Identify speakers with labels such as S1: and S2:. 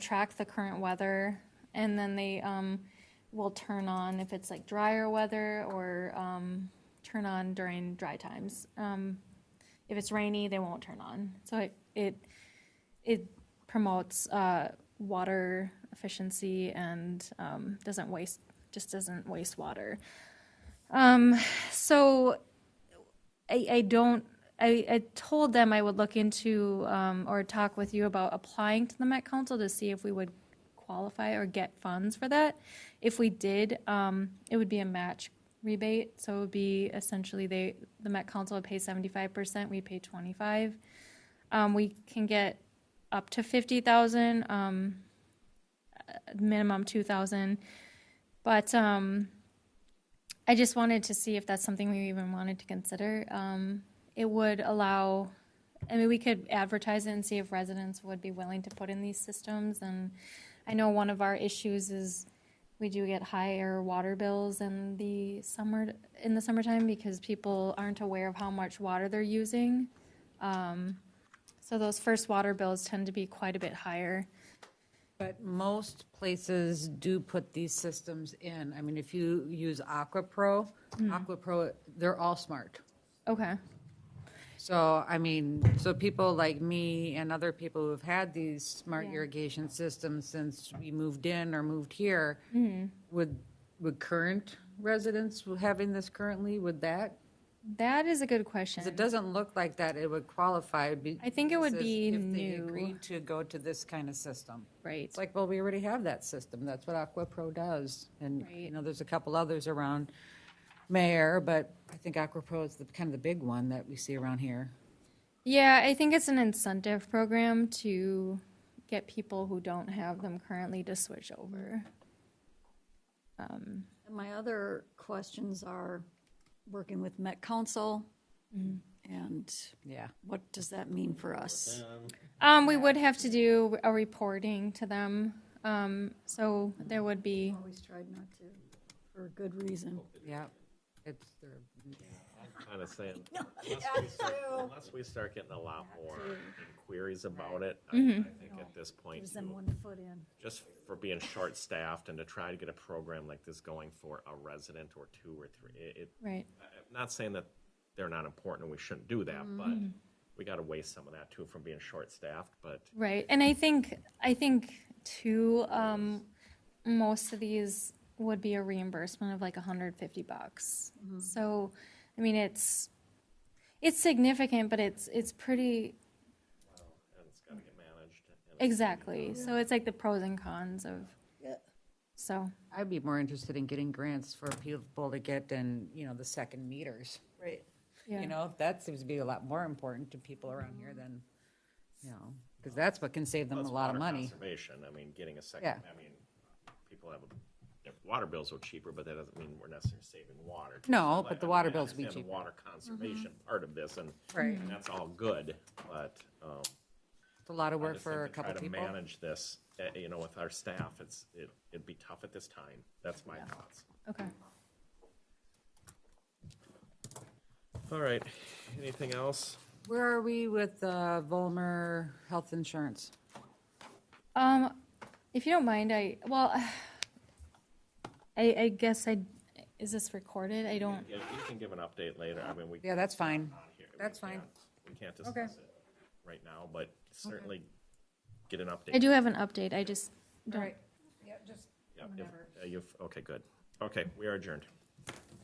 S1: track the current weather and then they um, will turn on if it's like drier weather or um, turn on during dry times. Um, if it's rainy, they won't turn on. So it it, it promotes uh, water efficiency and um, doesn't waste just doesn't waste water. Um, so I, I don't. I, I told them I would look into um, or talk with you about applying to the Met Council to see if we would qualify or get funds for that. If we did, um, it would be a match rebate, so it would be essentially they the Met Council would pay seventy five percent, we pay twenty five. Um, we can get up to fifty thousand, um, uh, minimum two thousand, but um, I just wanted to see if that's something we even wanted to consider. Um, it would allow, I mean, we could advertise it and see if residents would be willing to put in these systems. And I know one of our issues is we do get higher water bills in the summer, in the summertime because people aren't aware of how much water they're using. Um, so those first water bills tend to be quite a bit higher.
S2: But most places do put these systems in. I mean, if you use Aqua Pro,
S1: Hmm.
S2: Aqua Pro, they're all smart.
S1: Okay.
S2: So, I mean, so people like me and other people who've had these smart irrigation systems since we moved in or moved here,
S1: Hmm.
S2: would, would current residents who having this currently, would that?
S1: That is a good question.
S2: 'Cause it doesn't look like that it would qualify. be-
S1: I think it would
S2: this is
S1: be
S2: If they
S1: new.
S2: agreed to go to this kind of system.
S1: Right.
S2: It's like, well, we already have that system. That's what Aqua Pro does. And, you
S1: Right.
S2: know, there's a couple others around Mayor, but I think Aqua Pro is the, kind of the big one that we see around here.
S1: Yeah, I think it's an incentive program to get people who don't have them currently to switch over.
S3: And My other questions are working with Met Council and
S2: Yeah.
S3: what does that mean for us?
S1: Um, we would have to do a reporting to them, um, so there would be,
S3: Always tried not to, for a good reason.
S2: Yeah. It's, their-
S4: kind of saying. unless we start- Unless we start getting a lot more inquiries about it, I I think at this point,
S3: Gives them
S4: you-
S3: one foot in.
S4: just for being short-staffed and to try to get a program like this going for a resident or two or three, it, it-
S1: right,
S4: I- I'm not saying that they're not important and we shouldn't do that, but we got to waste some of that too from being short-staffed, but
S1: right. And I think, I think too, um, most of these would be a reimbursement of like hundred and fifty bucks. So, I mean, it's, it's significant, but it's, it's pretty,
S4: and it's got to get managed. and-
S1: exactly. So it's like the pros and cons of, so.
S2: I'd be more interested in getting grants for people to get than, you know, the second meters.
S5: Right.
S1: Yeah.
S2: You know, that seems to be a lot more important to people around here than, you know, because that's what can save them a
S4: That's
S2: lot of
S4: water
S2: money.
S4: Conservation, I mean, getting a second,
S2: Yeah.
S4: I mean, people have, a- their water bills are cheaper, but that doesn't mean we're necessarily saving water.
S2: No,
S4: Just
S2: but the
S4: I- I
S2: water
S4: mean, I
S2: bills will be
S4: understand the
S2: cheaper. Mm-hmm.
S4: Water conservation part of this, and,
S2: Right.
S4: and that's all good, but, um.
S2: It's a lot of
S4: I
S2: work
S4: just think
S2: for a
S4: to
S2: couple people.
S4: Try to manage this, uh, you know, with our staff, it's, it, it'd be tough at this time, that's my thoughts.
S1: Okay.
S4: All right, anything else?
S2: Where are we with uh, Volmer Health Insurance?
S1: Um, if you don't mind, I, well, I, I guess I, is this recorded? I don't,
S4: Yeah, you can give an update later, I mean, we.
S2: Yeah, that's fine.
S4: here. We
S2: That's fine.
S4: can't- We can't discuss it right now, but certainly get an update.
S1: I do have an update. I just don't.
S2: Yeah, just
S4: Yeah, if- uh, you've, okay, good. Okay, we are adjourned.